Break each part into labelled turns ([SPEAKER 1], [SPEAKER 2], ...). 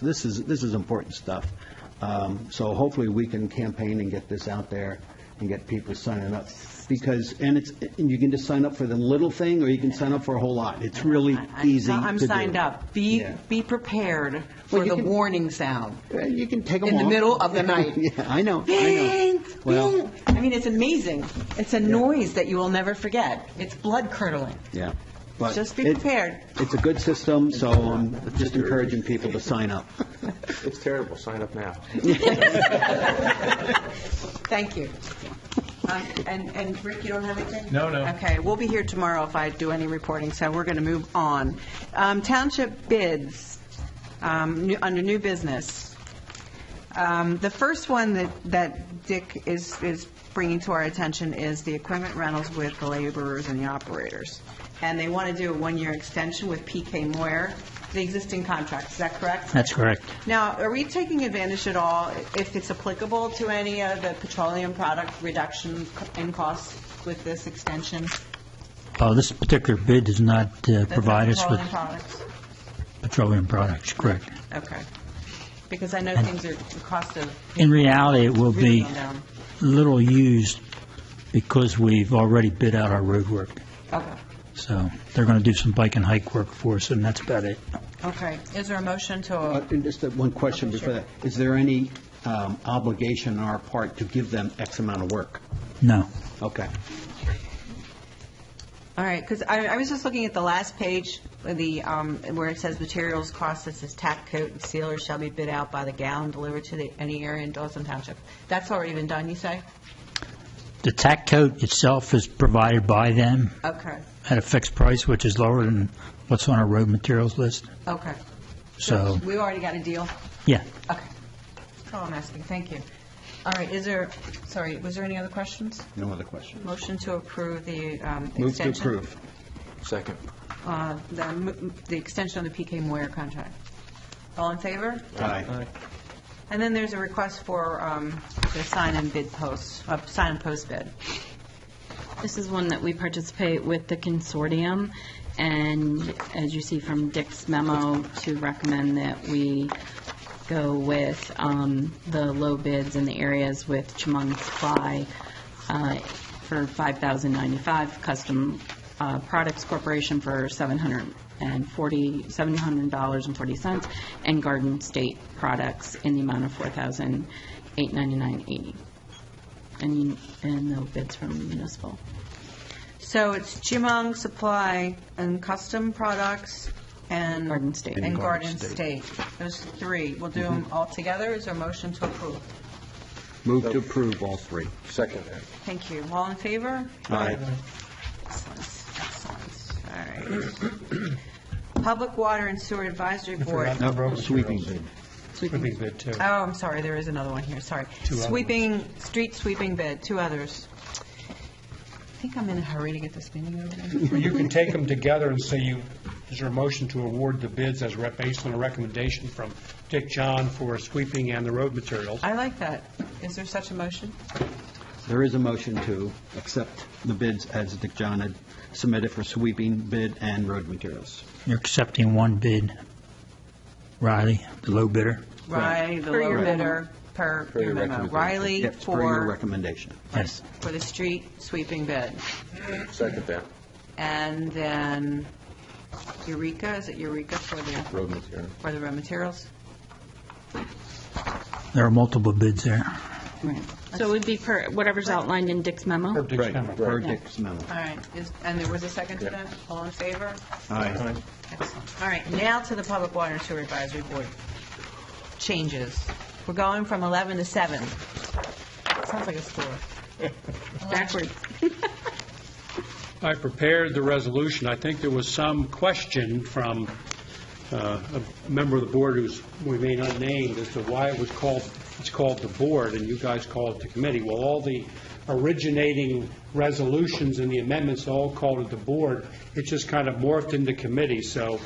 [SPEAKER 1] This is, this is important stuff. Um, So hopefully, we can campaign and get this out there and get people signing up. Because, and it's, and you can just sign up for the little thing, or you can sign up for a whole lot. It's really
[SPEAKER 2] I-
[SPEAKER 1] easy
[SPEAKER 2] I'm
[SPEAKER 1] to do.
[SPEAKER 2] signed up. Be,
[SPEAKER 1] Yeah.
[SPEAKER 2] be prepared
[SPEAKER 1] Well,
[SPEAKER 2] for
[SPEAKER 1] you
[SPEAKER 2] the
[SPEAKER 1] can-
[SPEAKER 2] warning sound.
[SPEAKER 1] Uh, You can take them
[SPEAKER 2] In the
[SPEAKER 1] off.
[SPEAKER 2] middle of the night.
[SPEAKER 1] Yeah, I know, I know.
[SPEAKER 2] Bing,
[SPEAKER 1] Well,
[SPEAKER 2] bing. I mean, it's amazing. It's a noise that you will never forget. It's blood curdling.
[SPEAKER 1] yeah. but
[SPEAKER 2] Just be
[SPEAKER 1] it-
[SPEAKER 2] prepared.
[SPEAKER 1] It's a good system, so I'm just encouraging people to sign up.
[SPEAKER 3] It's terrible, sign up now.
[SPEAKER 2] Thank you. Um, And, and Rick, you don't have anything?
[SPEAKER 4] No, no.
[SPEAKER 2] Okay, we'll be here tomorrow if I do any reporting, so we're going to move on. Um, Township bids, um, new- under new business. Um, The first one that, that Dick is, is bringing to our attention is the equipment rentals with the laborers and the operators. And they want to do a one-year extension with PK Moyer, the existing contract, is that correct?
[SPEAKER 5] That's correct.
[SPEAKER 2] Now, are we taking advantage at all, if it's applicable to any of the petroleum product reduction in costs with this extension?
[SPEAKER 5] Uh, This particular bid does not uh,
[SPEAKER 2] The
[SPEAKER 5] provide us with
[SPEAKER 2] Petroleum products?
[SPEAKER 5] petroleum products, correct.
[SPEAKER 2] Okay. Because I know things are, the cost of.
[SPEAKER 5] In reality, it will
[SPEAKER 2] really
[SPEAKER 5] be
[SPEAKER 2] gone down.
[SPEAKER 5] little used because we've already bid out our road work.
[SPEAKER 2] Okay,
[SPEAKER 5] So they're going to do some bike and hike work for us, and that's about it.
[SPEAKER 2] okay. Is there a motion
[SPEAKER 1] Uh,
[SPEAKER 2] to,
[SPEAKER 1] and Just that one question
[SPEAKER 2] Okay,
[SPEAKER 1] before
[SPEAKER 2] sure.
[SPEAKER 1] that. Is there any um, obligation on our part to give them X amount of work?
[SPEAKER 5] No.
[SPEAKER 1] Okay.
[SPEAKER 2] all right, because I, I was just looking at the last page, the, um, where it says materials costs, it says tack coat and sealer shall be bid out by the gallon delivered to the, any area in Dawson Township. That's already been done, you say?
[SPEAKER 5] The tack coat itself is provided by them
[SPEAKER 2] Okay,
[SPEAKER 5] at a fixed price, which is lower than what's on our road materials list.
[SPEAKER 2] okay.
[SPEAKER 5] So,
[SPEAKER 2] We already got a deal?
[SPEAKER 5] yeah.
[SPEAKER 2] Okay. That's all I'm asking, thank you. All right, is there, sorry, was there any other questions?
[SPEAKER 1] No other questions.
[SPEAKER 2] Motion to approve the um, extension?
[SPEAKER 1] Move to approve.
[SPEAKER 3] Second.
[SPEAKER 2] uh, The m- the extension of the PK Moyer contract. All in favor?
[SPEAKER 1] Aye.
[SPEAKER 2] And then there's a request for um, the sign and bid post, uh, sign and post bid.
[SPEAKER 6] This is one that we participate with the consortium, and as you see from Dick's memo, to recommend that we go with um, the low bids in the areas with Chumong Supply uh, for $5,095, Custom uh, Products Corporation for $740, $700.40, and Garden State Products in the amount of $4,899.80. And, and no bids from municipal.
[SPEAKER 2] So it's Jimong Supply and Custom Products and...
[SPEAKER 6] Garden State.
[SPEAKER 2] And Garden State. Those three. We'll do them all together. Is there a motion to approve?
[SPEAKER 1] Move to approve all three.
[SPEAKER 3] Second.
[SPEAKER 2] Thank you. All in favor?
[SPEAKER 1] Aye.
[SPEAKER 2] All right. Public Water and Sewer Advisory Board.
[SPEAKER 4] forgot
[SPEAKER 2] Oh,
[SPEAKER 4] the road
[SPEAKER 1] sweeping
[SPEAKER 4] materials.
[SPEAKER 1] bid.
[SPEAKER 4] Would be good, too.
[SPEAKER 2] I'm sorry, there is another one here, sorry.
[SPEAKER 4] Two others.
[SPEAKER 2] Sweeping, street sweeping bid, two others. I think I'm in a hurry to get this meeting over with.
[SPEAKER 4] Well, You can take them together and say you, is there a motion to award the bids as rep, based on a recommendation from Dick John for sweeping and the road materials?
[SPEAKER 2] I like that. Is there such a motion?
[SPEAKER 1] There is a motion to accept the bids as Dick John had submitted for sweeping bid and road materials.
[SPEAKER 5] You're accepting one bid, Riley, the low bidder.
[SPEAKER 2] Riley, the
[SPEAKER 6] Per your
[SPEAKER 2] lower
[SPEAKER 6] memo.
[SPEAKER 2] bidder, per
[SPEAKER 3] Per
[SPEAKER 2] your
[SPEAKER 3] your
[SPEAKER 2] memo.
[SPEAKER 3] recommendation.
[SPEAKER 2] Riley
[SPEAKER 1] Yes, per your
[SPEAKER 2] for,
[SPEAKER 1] recommendation.
[SPEAKER 5] Yes.
[SPEAKER 2] for the street sweeping bid.
[SPEAKER 3] Second that,
[SPEAKER 2] And then Eureka, is it Eureka for the,
[SPEAKER 3] road material.
[SPEAKER 2] for the raw materials?
[SPEAKER 5] There are multiple bids there.
[SPEAKER 6] So it would be per, whatever's outlined in Dick's
[SPEAKER 4] Per
[SPEAKER 6] memo?
[SPEAKER 4] Dick's memo.
[SPEAKER 1] Per Dick's memo.
[SPEAKER 2] All right, is, and there was a second to that? All in favor?
[SPEAKER 1] Aye.
[SPEAKER 2] Excellent. All right, now to the Public Water and Sewer Advisory Board changes. We're going from 11 to 7. Sounds like a score.
[SPEAKER 6] Backwards.
[SPEAKER 4] I prepared the resolution. I think there was some question from uh, a member of the board who's, we may not name, as to why it was called, it's called the board, and you guys call it the committee. Well, all the originating resolutions and the amendments all called it the board. It just kind of morphed into committee, so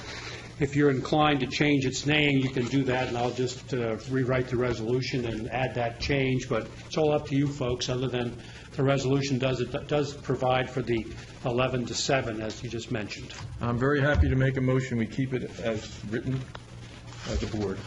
[SPEAKER 4] if you're inclined to change its name, you can do that, and I'll just uh, rewrite the resolution and add that change, but it's all up to you folks, other than the resolution does, it does provide for the 11 to 7, as you just mentioned.
[SPEAKER 3] I'm very happy to make a motion, we keep it as written as a board.